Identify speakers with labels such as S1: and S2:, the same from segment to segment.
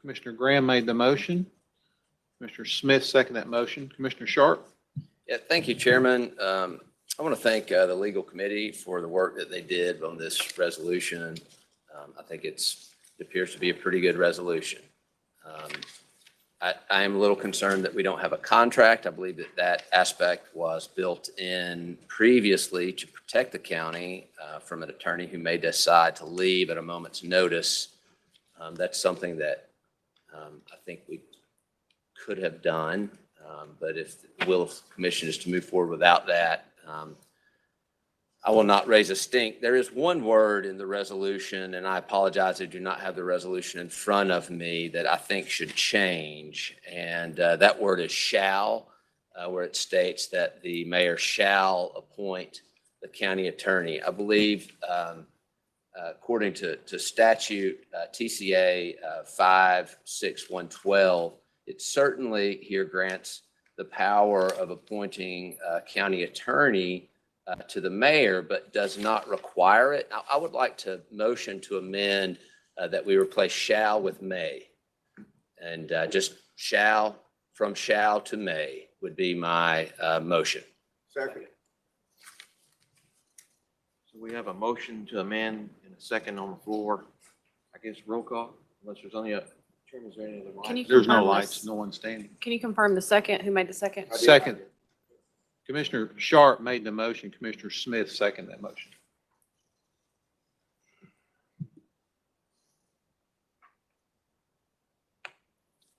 S1: Commissioner Graham made the motion. Commissioner Smith seconded that motion. Commissioner Sharp?
S2: Yeah, thank you, Chairman. Um, I want to thank uh, the legal committee for the work that they did on this resolution. Um, I think it's, it appears to be a pretty good resolution. Um, I, I am a little concerned that we don't have a contract. I believe that that aspect was built in previously to protect the county uh, from an attorney who may decide to leave at a moment's notice. Um, That's something that um, I think we could have done, um, but if the will of the commission is to move forward without that, um, I will not raise a stink. There is one word in the resolution, and I apologize, I do not have the resolution in front of me that I think should change. And uh, that word is shall, uh, where it states that the mayor shall appoint the county attorney. I believe um, uh, according to, to statute, uh, TCA uh, 56112, it certainly here grants the power of appointing a county attorney uh, to the mayor, but does not require it. I, I would like to motion to amend uh, that we replace shall with may. And uh, just shall, from shall to may would be my uh, motion.
S3: Second.
S4: So we have a motion to amend and a second on the floor. I guess roll call, unless there's only a, Chairman, is there any other?
S5: Can you
S4: lights?
S1: There's no
S5: confirm
S1: lights,
S5: this?
S1: no one standing.
S5: Can you confirm the second? Who made the second?
S3: I did.
S1: Second. Commissioner Sharp made the motion. Commissioner Smith seconded that motion.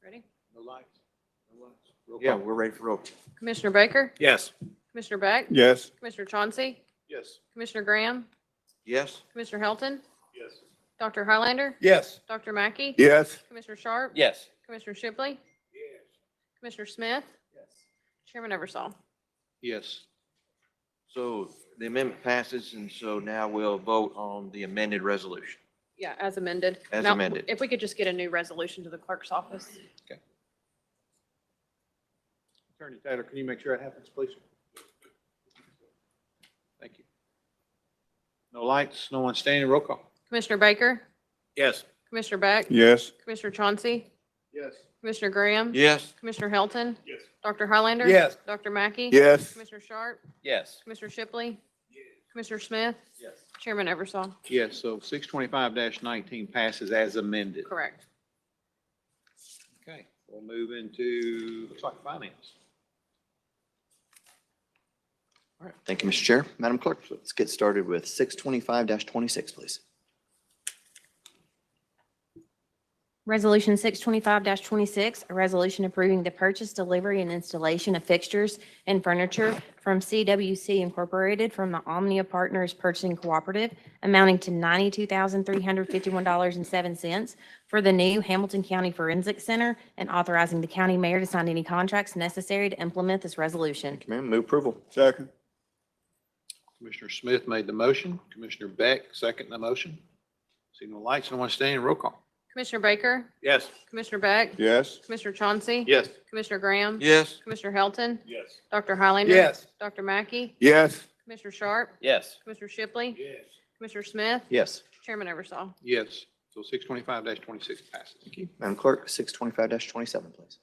S5: Ready?
S1: No lights? No lights. Roll
S4: Yeah,
S1: call.
S4: we're ready for roll. call.
S5: Commissioner Baker?
S3: Yes.
S5: Commissioner Beck?
S3: Yes.
S5: Commissioner Chauncey?
S1: Yes.
S5: Commissioner Graham?
S4: Yes?
S5: Commissioner Helton,
S3: Yes.
S5: Dr. Highlander?
S3: Yes.
S5: Dr. Mackey?
S3: Yes.
S5: Commissioner Sharp?
S2: Yes.
S5: Commissioner Shipley? Commissioner Smith? Chairman Eversol.
S1: Yes.
S4: So the amendment passes, and so now we'll vote on the amended resolution.
S5: Yeah, as amended.
S4: As
S5: Now,
S4: amended.
S5: If we could just get a new resolution to the clerk's office.
S1: Attorney Taylor, can you make sure that happens, please? Thank you. No lights, no one standing. Roll call.
S5: Commissioner Baker?
S4: Yes.
S5: Commissioner Beck?
S3: Yes.
S5: Commissioner Chauncey?
S1: Yes.
S5: Commissioner Graham?
S4: Yes?
S5: Commissioner Helton,
S1: Yes.
S5: Dr. Highlander?
S3: Yes.
S5: Dr. Mackey?
S3: Yes.
S5: Commissioner Sharp?
S2: Yes.
S5: Commissioner Shipley? Commissioner Smith?
S1: Yes.
S5: Chairman Eversol.
S1: Yes, so six twenty-five nineteen passes as amended.
S5: Correct.
S1: Okay, we'll move into, looks like finance.
S6: All right, thank you, Mr. Chair. Madam Clerk, let's get started with six twenty-five twenty-six, please.
S7: Resolution six twenty-five twenty-six, a resolution approving the purchase, delivery, and installation of fixtures and furniture from CWC Incorporated from the Omnia Partners Purchasing Cooperative amounting to ninety-two thousand three hundred fifty-one dollars and seven cents for the new Hamilton County Forensic Center and authorizing the county mayor to sign any contracts necessary to implement this resolution.
S6: Thank you, ma'am. Move approval.
S3: Second.
S1: Commissioner Smith made the motion. Commissioner Beck, second the motion. See no lights, no one standing. Roll call.
S5: Commissioner Baker?
S4: Yes.
S5: Commissioner Beck?
S3: Yes.
S5: Commissioner Chauncey?
S1: Yes.
S5: Commissioner Graham?
S4: Yes?
S5: Commissioner Helton,
S3: Yes.
S5: Dr. Highlander?
S3: Yes.
S5: Dr. Mackey?
S3: Yes.
S5: Commissioner Sharp?
S2: Yes.
S5: Commissioner Shipley?
S3: Yes.
S5: Commissioner Smith?
S6: Yes.
S5: Chairman Eversol.
S1: Yes, so six twenty-five twenty-six passes.
S6: Thank you. Madam Clerk, six twenty-five twenty-seven, please.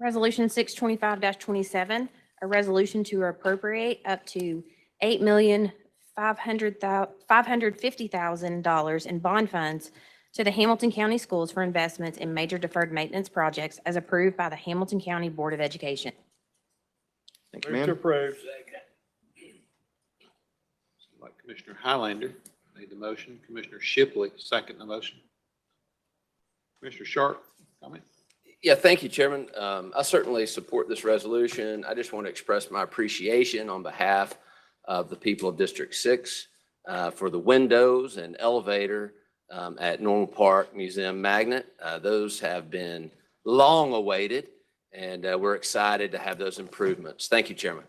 S7: Resolution six twenty-five twenty-seven, a resolution to appropriate up to eight million five hundred thou, five hundred fifty thousand dollars in bond funds to the Hamilton County Schools for investments in major deferred maintenance projects as approved by the Hamilton County Board of Education.
S6: Thank you, ma'am.
S3: approve.
S1: Like Commissioner Highlander made the motion. Commissioner Shipley, second the motion. Commissioner Sharp, comment?
S2: Yeah, thank you, Chairman. Um, I certainly support this resolution. I just want to express my appreciation on behalf of the people of District Six uh, for the windows and elevator um, at Normal Park Museum Magnet. Uh, Those have been long awaited, and uh, we're excited to have those improvements. Thank you, Chairman.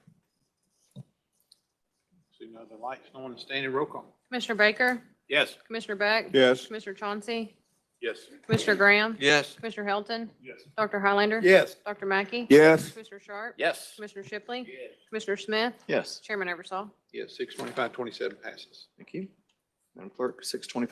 S1: See no other lights, no one standing. Roll call.
S5: Commissioner Baker?
S4: Yes.
S5: Commissioner Beck?
S3: Yes.
S5: Commissioner Chauncey?
S1: Yes.
S5: Commissioner Graham?
S4: Yes?
S5: Commissioner Helton,
S1: Yes.
S5: Dr. Highlander?
S3: Yes.
S5: Dr. Mackey?
S3: Yes.
S5: Commissioner Sharp?
S2: Yes.
S5: Commissioner Shipley? Commissioner Smith?
S6: Yes.
S5: Chairman Eversol.
S1: Yes, six twenty-five twenty-seven passes.
S6: Thank you. Madam Clerk, six twenty-five